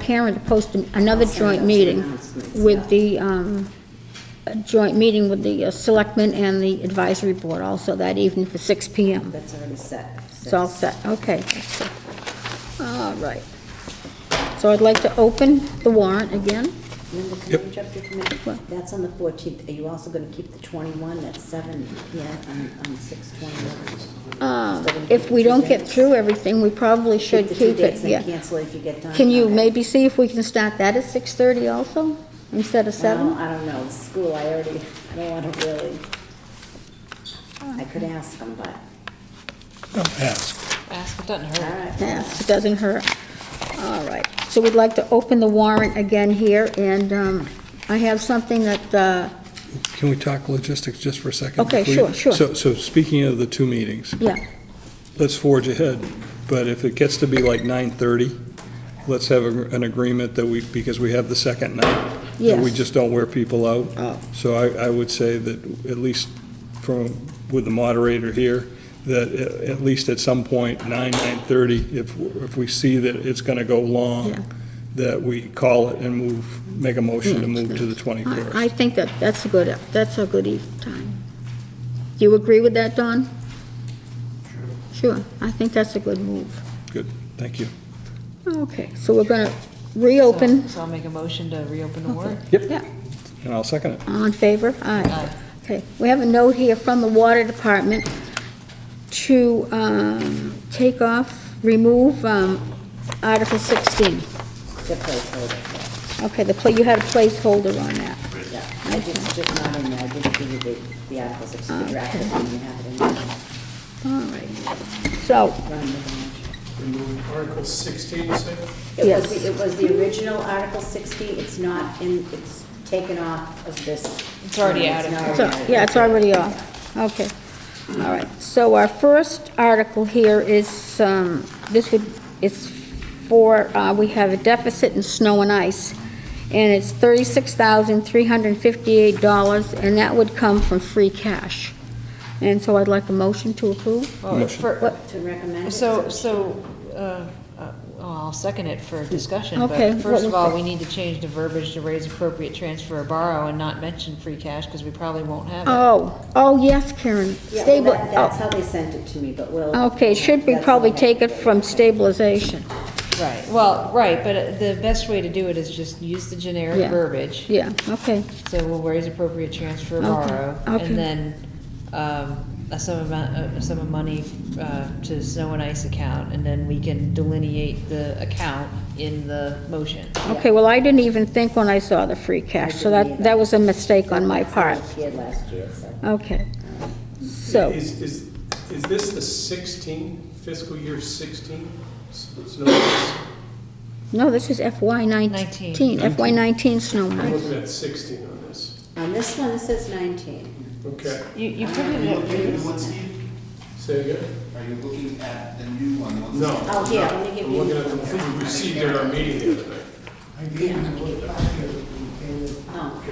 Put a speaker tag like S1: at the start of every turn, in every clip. S1: Karen to post another joint meeting with the, um, a joint meeting with the uh, selectmen and the advisory board also that evening for six PM.
S2: That's already set.
S1: It's all set, okay. that's it. All right. So I'd like to open the warrant again.
S2: Linda, can I interrupt you for a minute? That's on the 14th. Are you also going to keep the 21 at 7, yeah, on on 6/21?
S1: Um, If we don't get through everything, we probably should
S2: the two
S1: keep
S2: dates
S1: it,
S2: and
S1: yeah.
S2: cancel it if you get done.
S1: Can you
S2: Okay.
S1: maybe see if we can start that at 6:30 also, instead of 7?
S2: Well, I don't know, school, I already, I don't want to really, I could ask them, but,
S3: Don't ask.
S4: Ask, it doesn't hurt.
S2: all right.
S1: Yes, it doesn't hurt. All right, so we'd like to open the warrant again here, and um, I have something that, uh,
S3: Can we talk logistics just for a second?
S1: Okay,
S3: before you-
S1: sure, sure.
S3: So, so speaking of the two meetings,
S1: yeah,
S3: let's forge ahead, but if it gets to be like 9:30, let's have a- an agreement that we, because we have the second night, that we
S1: yes.
S3: just don't wear people out.
S1: Oh.
S3: So I, I would say that at least from, with the moderator here, that a- at least at some point, 9, 9:30, if, if we see that it's going to go
S1: Yeah.
S3: long, that we call it and move, make a motion to move to the 21st.
S1: I I think that, that's a good, that's a good eve- time. Do you agree with that, Don? Sure, I think that's a good move.
S3: Good, thank you.
S1: Okay, so we're going to reopen,
S4: So I'll make a motion to reopen the warrant. Uh,
S1: yeah,
S3: And I'll second it.
S1: all in favor?
S4: Aye.
S1: Okay, we have a note here from the water department to um, take off, remove um, Article 16.
S2: The placeholder,
S1: Okay, the, pla- you had a placeholder on that.
S2: yeah. I just, just not in there, I didn't give you the, the articles, it's the draft, I didn't have it in there.
S1: All right. So,
S2: Run with it.
S5: Remove Article 16, you say?
S2: It was,
S1: Yes.
S2: the- it was the original Article 60, it's not in, it's taken off of this.
S4: It's already out of
S2: not
S1: so,
S2: already
S1: yeah,
S2: out.
S1: it's already off. Okay. All right. So our first article here is, um, this would, it's for, uh, we have a deficit in snow and ice, and it's $36,358, and that would come from free cash. And so I'd like a motion to approve.
S4: Well,
S3: Motion.
S4: for-
S1: What?
S2: To recommend it.
S4: So, so, uh, uh, well, I'll second it for discussion,
S1: Okay,
S4: but
S1: what
S4: first of
S1: was
S4: all,
S1: the-
S4: we need to change the verbiage to raise appropriate transfer or borrow and not mention free cash, because we probably won't have it.
S1: Oh, oh, yes, Karen.
S2: Yeah, well,
S1: Stable,
S2: that-
S1: oh.
S2: That's how they sent it to me, but we'll.
S1: Okay, should we
S2: that's
S1: probably
S2: okay.
S1: take it from stabilization?
S4: Right, well, right, but uh, the best way to do it is just use the generic
S1: Yeah.
S4: verbiage.
S1: Yeah, okay,
S4: So we'll raise appropriate transfer or
S1: Okay,
S4: borrow,
S1: okay.
S4: and then, um, a sum amount, a sum of money, uh, to snow and ice account, and then we can delineate the account in the motion.
S1: okay, well, I didn't even think when I saw the free cash, so
S2: didn't
S1: that,
S2: either.
S1: that was a mistake on my
S2: That's how
S1: part.
S2: it appeared last year, so.
S1: Okay, so,
S5: Is, is, is this the 16, fiscal year 16? S- snow days?
S1: no, this is FY nineteen,
S4: Nineteen.
S1: FY nineteen snow and
S5: I'm
S1: ice.
S5: looking at 16 on this.
S2: On this one, it says 19.
S5: Okay,
S4: You, you put
S6: Are
S4: it
S6: you
S4: in-
S6: looking at the one, Steve?
S5: say again?
S6: Are you looking at the new one, the one?
S5: No.
S2: Oh, here, let me give
S5: I'm
S2: you.
S5: looking at the one we received at our meeting the other night.
S2: Oh.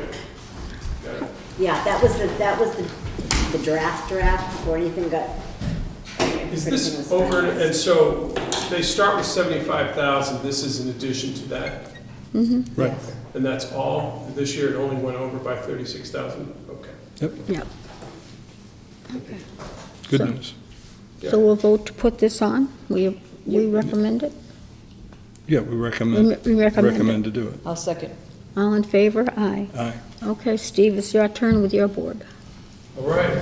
S2: Yeah, that was the, that was the, the draft draft before anything got.
S5: Is
S2: everything was
S5: this over,
S2: finalized.
S5: and so they start with 75,000, this is in addition to that?
S3: Right.
S5: And that's all? This year it only went over by 36,000? Okay.
S3: Yep,
S1: yeah.
S3: good news.
S1: So we'll vote to put this on, we, we recommend it,
S3: Yeah, we recommend,
S1: We- we recommend it.
S3: Mm. recommend to do it.
S4: I'll second.
S1: all in favor, aye.
S3: Aye.
S1: Okay, Steve, it's your turn with your board.
S5: All right.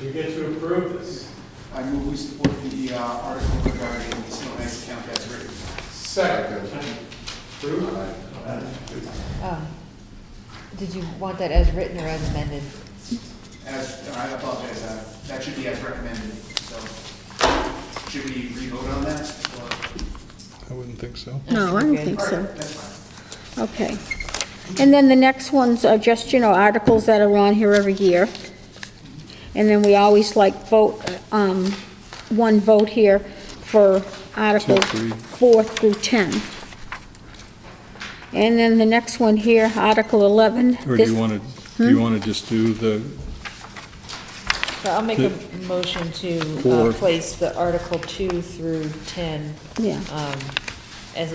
S5: We get to approve this.
S6: I move we support the uh, article regarding the snow and ice account that's written.
S5: Second. Approved?
S6: Uh,
S4: Um, Did you want that as written or as amended?
S6: As, I apologize, uh, that should be as recommended, so should we re-vote on that? or-
S3: I wouldn't think so.
S1: No, I don't
S4: Okay.
S1: think
S6: All
S1: so.
S6: right, that's fine.
S1: Okay. And then the next ones are just, you know, articles that are on here every year. And then we always like vote, um, one vote here for Articles
S3: Two, three.
S1: 4 through 10. And then the next one here, Article 11.
S3: Or do
S1: This- Hmm?
S3: you want to, do you want to just do the,
S4: So I'll make a motion to uh,
S3: Four.
S4: place the Article 2 through 10
S1: Yeah,
S4: um,